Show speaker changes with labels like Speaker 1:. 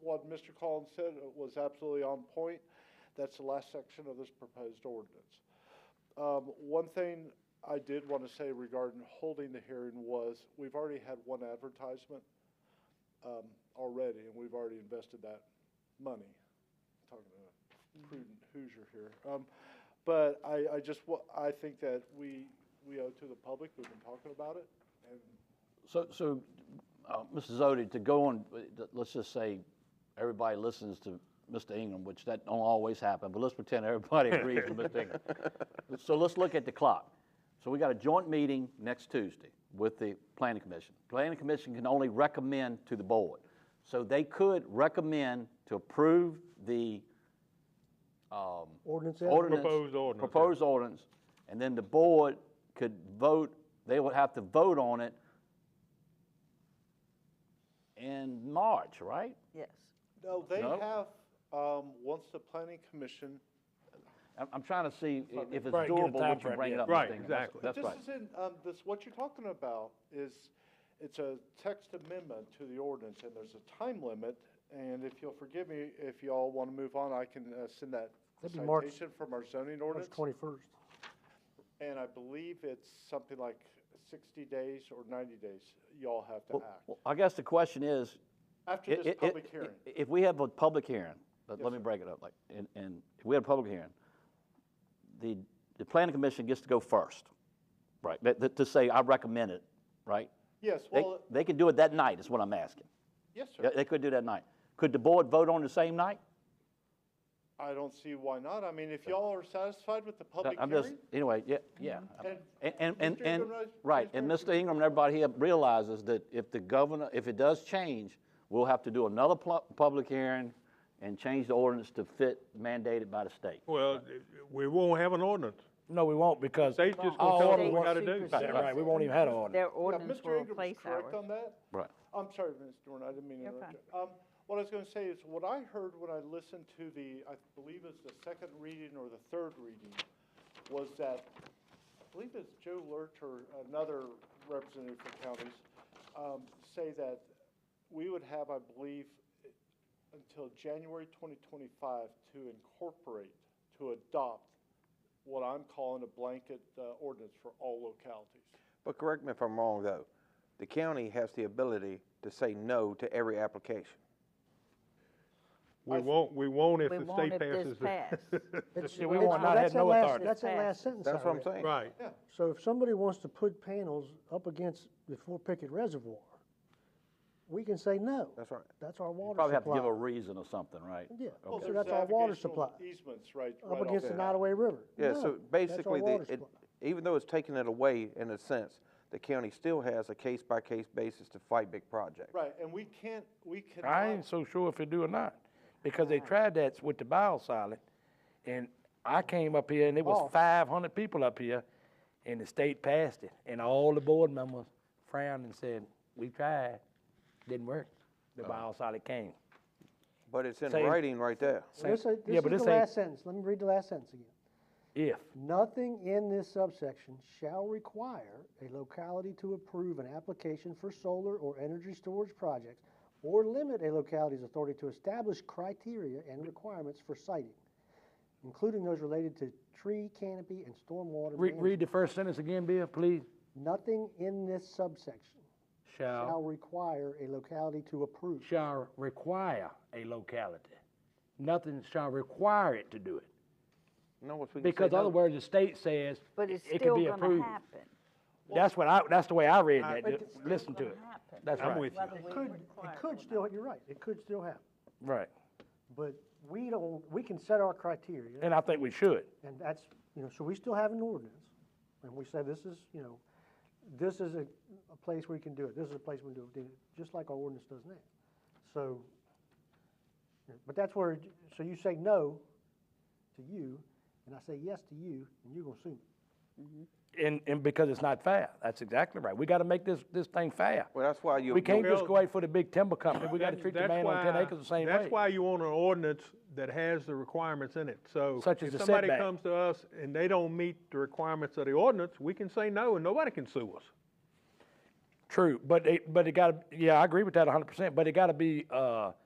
Speaker 1: what Mr. Collins said uh, was absolutely on point. That's the last section of this proposed ordinance. Um, one thing I did want to say regarding holding the hearing was, we've already had one advertisement, um, already, and we've already invested that money. Talking to a prudent Hoosier here. Um, but I, I just, wa- I think that we, we owe to the public, we've been talking about it, and
Speaker 2: So, so, uh, Mr. Zodi, to go on, uh, th- let's just say everybody listens to Mr. Ingram, which that don't always happen, but let's pretend everybody agrees with Mr. Ingram. So let's look at the clock. So we got a joint meeting next Tuesday with the planning commission. Planning commission can only recommend to the board. So they could recommend to approve the um,
Speaker 3: Ordinance as-
Speaker 2: ordinance.
Speaker 4: Proposed ordinance, yeah.
Speaker 2: Proposed ordinance, and then the board could vote, they would have to vote on it in March, right?
Speaker 5: Yes.
Speaker 1: No, they
Speaker 2: No?
Speaker 1: have, um, once the planning commission,
Speaker 2: I'm, I'm trying to see i- if it's
Speaker 3: Right, get a
Speaker 2: doable,
Speaker 3: time
Speaker 2: would you
Speaker 3: frame,
Speaker 2: bring it
Speaker 3: yeah.
Speaker 2: up?
Speaker 4: Right,
Speaker 2: Mr. Ingram?
Speaker 4: exactly.
Speaker 2: That's
Speaker 1: this
Speaker 2: that's right.
Speaker 1: isn't, um, this, what you're talking about is, it's a text amendment to the ordinance, and there's a time limit, and if you'll forgive me, if y'all wanna move on, I can, uh, send that
Speaker 3: That'd be March-
Speaker 1: citation from our zoning
Speaker 3: March
Speaker 1: ordinance.
Speaker 3: twenty-first.
Speaker 1: And I believe it's something like sixty days or ninety days, y'all have to
Speaker 2: Well,
Speaker 1: act,
Speaker 2: well, I guess the question is.
Speaker 1: after
Speaker 2: i-
Speaker 1: this
Speaker 2: i- i-
Speaker 1: public hearing.
Speaker 2: i- If we have a public hearing, but
Speaker 1: Yes,
Speaker 2: let me break it up, like, and, and if we had a public hearing, the, the planning commission gets to go first, right? That- that- to say, I recommend it, right?
Speaker 1: Yes,
Speaker 2: They,
Speaker 1: well, uh,
Speaker 2: they could do it that night, is what I'm asking.
Speaker 1: yes,
Speaker 2: Yeah,
Speaker 1: sir,
Speaker 2: They could do that night. Could the board vote on the same night?
Speaker 1: I don't see why not, I mean, if y'all are satisfied with the public
Speaker 2: I'm just,
Speaker 1: hearing, Mm-hmm.
Speaker 2: anyway, yeah, yeah.
Speaker 1: And
Speaker 2: And, and, and,
Speaker 1: Mr.
Speaker 2: and-
Speaker 1: Ingram, right,
Speaker 2: right,
Speaker 1: please
Speaker 2: and
Speaker 1: vote.
Speaker 2: Mr. Ingram and everybody here realizes that if the governor, if it does change, we'll have to do another pl- public hearing and change the ordinance to fit mandated by the state.
Speaker 5: Uh,
Speaker 4: Well, we won't have an ordinance.
Speaker 3: No, we won't because.
Speaker 4: State's just
Speaker 3: all
Speaker 4: gonna tell us
Speaker 3: ordinance-
Speaker 4: what we gotta do.
Speaker 5: Secret
Speaker 3: Right, right, we won't even have an ordinance.
Speaker 5: Their
Speaker 1: Yeah,
Speaker 5: ordinance
Speaker 1: Mr.
Speaker 5: will
Speaker 1: Ingram's
Speaker 5: replace
Speaker 1: Correct
Speaker 5: ours.
Speaker 1: on that?
Speaker 2: Right.
Speaker 1: I'm sorry, Ms. Dorn, I didn't mean to
Speaker 5: You're
Speaker 1: interrupt you. Um, what I was gonna say is, what I heard when I listened to the, I believe it's the second reading or the third reading, was that, I believe it's Joe Lurch or another representative for counties, um, say that we would have, I believe, until January twenty twenty-five to incorporate, to adopt what I'm calling a blanket, uh, ordinance for all localities.
Speaker 6: But correct me if I'm wrong, though, the county has the ability to say no to every application.
Speaker 4: We won't, we won't if
Speaker 5: We
Speaker 4: the
Speaker 5: won't
Speaker 4: state
Speaker 5: if this
Speaker 4: passes it.
Speaker 5: passes.
Speaker 3: It's-
Speaker 5: Yeah,
Speaker 3: we
Speaker 5: it's-
Speaker 3: will
Speaker 5: well,
Speaker 3: not
Speaker 5: that's
Speaker 3: have
Speaker 5: the
Speaker 3: no
Speaker 5: last-
Speaker 3: authority.
Speaker 5: that's
Speaker 3: That's
Speaker 5: the
Speaker 3: the
Speaker 5: last
Speaker 3: last sentence
Speaker 6: That's what I'm saying.
Speaker 4: Right,
Speaker 3: So if somebody wants to put panels up against the Fort Pickett Reservoir, we can say no.
Speaker 6: That's right.
Speaker 3: That's our water
Speaker 2: Probably have to give a
Speaker 3: supply.
Speaker 2: reason or something, right?
Speaker 3: Yeah,
Speaker 1: Well,
Speaker 3: so
Speaker 1: there's
Speaker 3: that's our water
Speaker 1: navigational
Speaker 3: supply,
Speaker 1: Easements, right. right
Speaker 3: up
Speaker 1: off
Speaker 3: against the
Speaker 1: that.
Speaker 3: Nottaway River.
Speaker 6: Yeah,
Speaker 3: No,
Speaker 6: so
Speaker 3: that's our
Speaker 6: basically,
Speaker 3: water
Speaker 6: the, it,
Speaker 3: supply.
Speaker 6: even though it's taking it away in a sense, the county still has a case-by-case basis to fight big projects.
Speaker 1: Right, and we can't, we
Speaker 7: I ain't
Speaker 1: cannot,
Speaker 7: so sure if they do or not, because
Speaker 4: Mm.
Speaker 7: they tried that with the biosolid, and I came up here, and it
Speaker 4: Oh.
Speaker 7: was five hundred people up here, and the state passed it, and all the board members frowned and said, we tried, didn't work,
Speaker 4: Oh.
Speaker 7: the biosolid came.
Speaker 6: But it's in
Speaker 7: Same.
Speaker 6: writing right there.
Speaker 3: Well, This, ain't-
Speaker 7: Yeah,
Speaker 3: this
Speaker 7: but
Speaker 3: is
Speaker 7: this
Speaker 3: the
Speaker 7: ain't-
Speaker 3: last sentence, let me read the last sentence again.
Speaker 7: If,
Speaker 3: Nothing in this subsection shall require a locality to approve an application for solar or energy storage projects or limit a locality's authority to establish criteria and requirements for siting, including those related to tree canopy and stormwater
Speaker 7: read,
Speaker 3: management.
Speaker 7: read the first sentence again, Bill, please.
Speaker 3: Nothing in this subsection shall
Speaker 7: Shall,
Speaker 3: require a locality to approve.
Speaker 7: shall require a locality. Nothing shall require it to do it,
Speaker 6: No, we can say
Speaker 7: because
Speaker 6: no.
Speaker 7: otherwise the state says
Speaker 5: But it's
Speaker 7: it can
Speaker 5: still
Speaker 7: be
Speaker 5: gonna
Speaker 7: approved.
Speaker 5: happen.
Speaker 7: That's what I, that's the way I read that,
Speaker 5: But
Speaker 7: just
Speaker 5: it's still
Speaker 7: listen to
Speaker 5: gonna
Speaker 7: it.
Speaker 5: happen,
Speaker 7: That's
Speaker 4: I'm
Speaker 7: right.
Speaker 4: with you.
Speaker 5: whether we
Speaker 3: Could,
Speaker 5: require
Speaker 3: it
Speaker 5: or
Speaker 3: could
Speaker 5: not.
Speaker 3: still, you're right, it could still happen,
Speaker 7: Right.
Speaker 3: but we don't, we can set our criteria.
Speaker 7: And I think we should.
Speaker 3: And that's, you know, so we still have an ordinance, and we say this is, you know, this is a, a place where you can do it, this is a place we can do it, just like our ordinance does now. So, you know, but that's where, so you say no to you, and I say yes to you, and you're gonna sue me.
Speaker 7: And, and because it's not fair. That's exactly right. We gotta make this, this thing fair.
Speaker 6: Well, that's why you.
Speaker 7: We can't
Speaker 4: Well-
Speaker 7: just go out for the big timber company. We gotta
Speaker 4: That-
Speaker 7: treat the
Speaker 4: that's
Speaker 7: man on ten
Speaker 4: why-
Speaker 7: acres the same way.
Speaker 4: That's why you want an ordinance that has the requirements in it, so.
Speaker 7: Such as the
Speaker 4: If somebody
Speaker 7: setback.
Speaker 4: comes to us and they don't meet the requirements of the ordinance, we can say no and nobody can sue us.
Speaker 7: True, but it, but it gotta, yeah, I agree with that hundred percent, but it gotta be, uh,